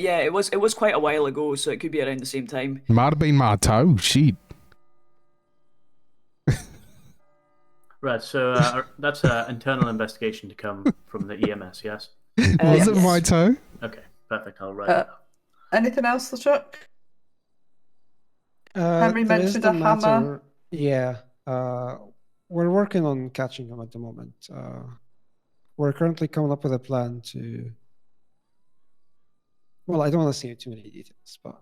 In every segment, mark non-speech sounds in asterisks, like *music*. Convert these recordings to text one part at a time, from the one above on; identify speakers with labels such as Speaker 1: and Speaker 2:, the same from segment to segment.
Speaker 1: Yeah, it was it was quite a while ago, so it could be around the same time.
Speaker 2: Might have been my toe. Shit.
Speaker 3: Right,
Speaker 2: *laughs*
Speaker 3: so uh, that's an internal investigation to come from the EMS, yes?
Speaker 1: Uh,
Speaker 2: Was it
Speaker 1: yes.
Speaker 2: my toe?
Speaker 3: Okay, perfect. I'll write
Speaker 4: Uh,
Speaker 3: it up.
Speaker 4: Anything else, LeChuck?
Speaker 5: Uh,
Speaker 4: Henry
Speaker 5: there
Speaker 4: mentioned
Speaker 5: is the
Speaker 4: a hammer.
Speaker 5: matter- Yeah, uh, we're working on catching him at the moment. Uh, we're currently coming up with a plan to. Well, I don't want to say too many details, but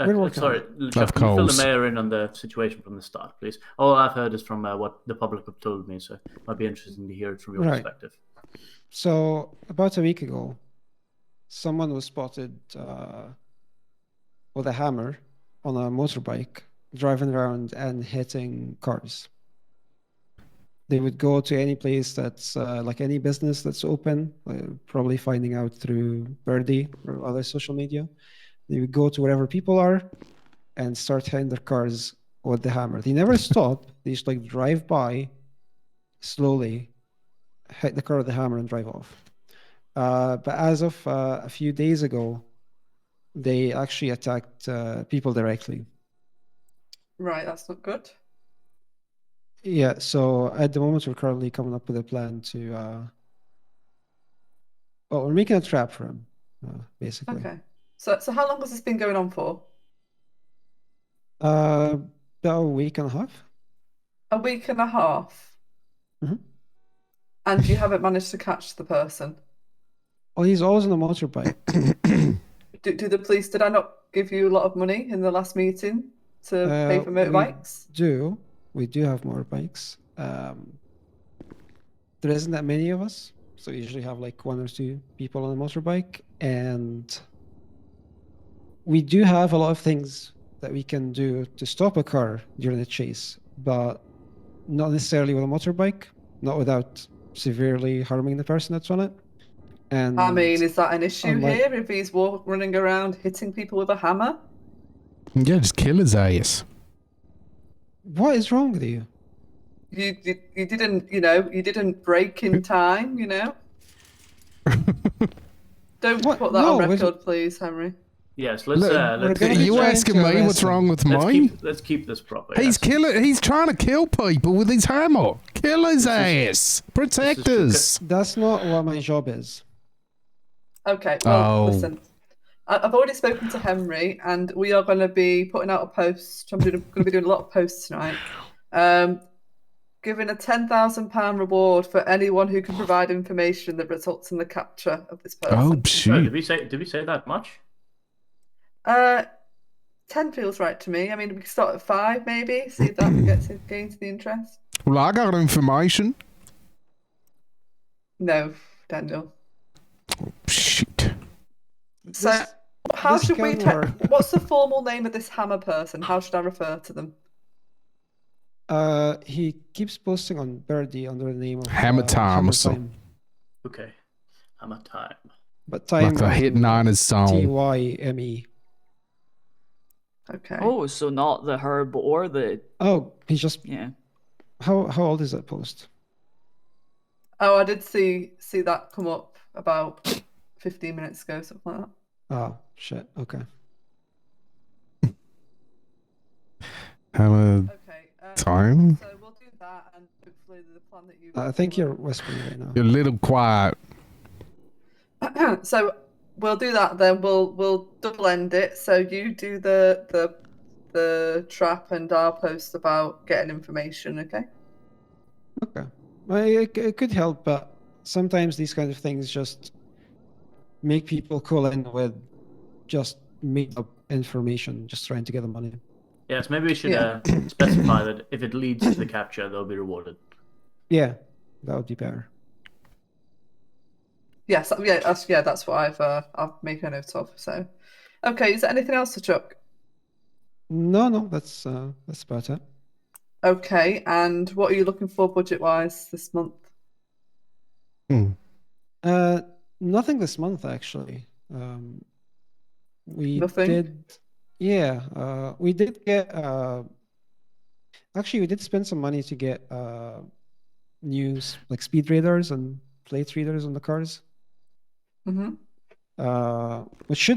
Speaker 3: Uh,
Speaker 5: we're
Speaker 3: uh,
Speaker 5: working
Speaker 3: sorry,
Speaker 5: on
Speaker 3: Lucia, can you fill the
Speaker 2: course.
Speaker 3: mayor in on the situation from the start, please. All I've heard is from uh, what the public have told me, so it might be interesting to hear it from your
Speaker 5: Right.
Speaker 3: perspective.
Speaker 5: so about a week ago, someone was spotted uh, with a hammer on a motorbike driving around and hitting cars. They would go to any place that's uh, like any business that's open, uh, probably finding out through Birdie or other social media. They would go to wherever people are and start hitting their cars with the hammer. They never stop, they just like drive by slowly, hit the car with the hammer, and drive off. Uh, but as of uh, a few days ago, they actually attacked uh, people directly.
Speaker 4: Right, that's not good.
Speaker 5: Yeah, so at the moment we're currently coming up with a plan to uh well, we're making a trap for him, uh, basically.
Speaker 4: Okay. So, so how long has this been going on for?
Speaker 5: Uh about a week and a half.
Speaker 4: A week and a half.
Speaker 5: Mhm.
Speaker 4: And you haven't managed to catch the person.
Speaker 5: Well, he's always on a motorbike.
Speaker 4: Do, do the police? Did I not give you a lot of money in the last meeting to pay
Speaker 5: Uh,
Speaker 4: for
Speaker 5: we-
Speaker 4: motorbikes?
Speaker 5: Do we do have motorbikes? Um there isn't that many of us, so we usually have like one or two people on a motorbike, and we do have a lot of things that we can do to stop a car during a chase, but not necessarily with a motorbike, not without severely harming the person that's on it. And
Speaker 4: I mean, is that an issue
Speaker 5: unlike-
Speaker 4: here? If he's walk, running around hitting people with a hammer?
Speaker 2: Yeah, just kill his ass.
Speaker 5: what is wrong with you?
Speaker 4: You, you you didn't you know you didn't break
Speaker 5: *laughs*
Speaker 4: in time you know. Don't
Speaker 5: What?
Speaker 4: put that on
Speaker 5: No, was it-
Speaker 4: record, please, Henry.
Speaker 3: Yes, let's,
Speaker 2: Look,
Speaker 3: uh,
Speaker 5: we're
Speaker 3: let's,
Speaker 5: gonna be
Speaker 2: you
Speaker 5: trying
Speaker 2: asking
Speaker 5: to
Speaker 2: me
Speaker 5: arrest
Speaker 2: what's
Speaker 5: him.
Speaker 2: wrong with
Speaker 3: let's,
Speaker 2: mine?
Speaker 3: keep, let's keep this proper.
Speaker 2: He's
Speaker 3: yes.
Speaker 2: killing. He's trying to kill people with his hammer. Kill his ass.
Speaker 3: this
Speaker 2: Protect
Speaker 3: is-
Speaker 2: us.
Speaker 5: That's not what my job is.
Speaker 4: Okay, well,
Speaker 2: Oh.
Speaker 4: listen. I- I've already spoken to Henry, and we are going to be putting out a post. I'm doing, going to be doing a lot of posts tonight. Um, giving a ten thousand pound reward for anyone who can provide information that results in the capture of this person.
Speaker 2: Oh
Speaker 3: Oh, did
Speaker 2: shoot!
Speaker 3: we say did we say that much?
Speaker 4: Uh, ten feels right to me. I mean, we could start at five, maybe. See if that gets gains the interest.
Speaker 2: Well, I got information.
Speaker 4: No, Daniel.
Speaker 2: Shoot.
Speaker 4: So,
Speaker 5: This-
Speaker 4: how
Speaker 5: this
Speaker 4: should we?
Speaker 5: can
Speaker 4: ta-
Speaker 5: work.
Speaker 4: What's the formal name of this hammer person? How should I refer to them?
Speaker 5: Uh, he keeps posting on Birdie under the name of
Speaker 2: Hammer
Speaker 5: uh,
Speaker 2: Time or
Speaker 5: Hammer
Speaker 2: some-
Speaker 5: Time.
Speaker 3: Okay, I'm at time.
Speaker 5: but time
Speaker 2: Like a hit nine is
Speaker 5: T
Speaker 2: song.
Speaker 5: Y M E.
Speaker 4: Okay.
Speaker 1: Oh, so not the herb or the
Speaker 5: Oh, he's just
Speaker 1: yeah.
Speaker 5: how how old is that post?
Speaker 4: Oh, I did see see that come up about fifteen minutes ago, something like that.
Speaker 5: Oh shit. Okay.
Speaker 2: Hammer
Speaker 4: Okay. Um,
Speaker 2: time.
Speaker 4: So we'll do that, and hopefully the plan that you.
Speaker 5: I think you're whispering right now.
Speaker 2: A little quiet.
Speaker 4: *clears throat* so we'll do that then. We'll we'll double end it. So you do the the the trap, and I'll post about getting information. Okay.
Speaker 5: Okay. Well, it, it could help, but sometimes these kind of things just make people call in with just made up information, just trying to get the money.
Speaker 3: Yes, maybe we should
Speaker 4: Yeah.
Speaker 3: uh, specify that if it leads to the capture, they'll be rewarded.
Speaker 5: Yeah, that would be better.
Speaker 4: Yes. that- Yeah. That's yeah. That's what I've uh, I've made a note of. So, okay. Is there anything else to chuck?
Speaker 5: No, no, that's uh, that's about it.
Speaker 4: Okay. And what are you looking for budget wise this month?
Speaker 5: Uh, nothing this month actually. Um, we
Speaker 4: Nothing?
Speaker 5: did, yeah. Uh, we did get. Uh, actually, we did spend some money to get uh, new s- like speed radars and plate readers on the cars,
Speaker 4: Mm-hmm.
Speaker 5: uh, which should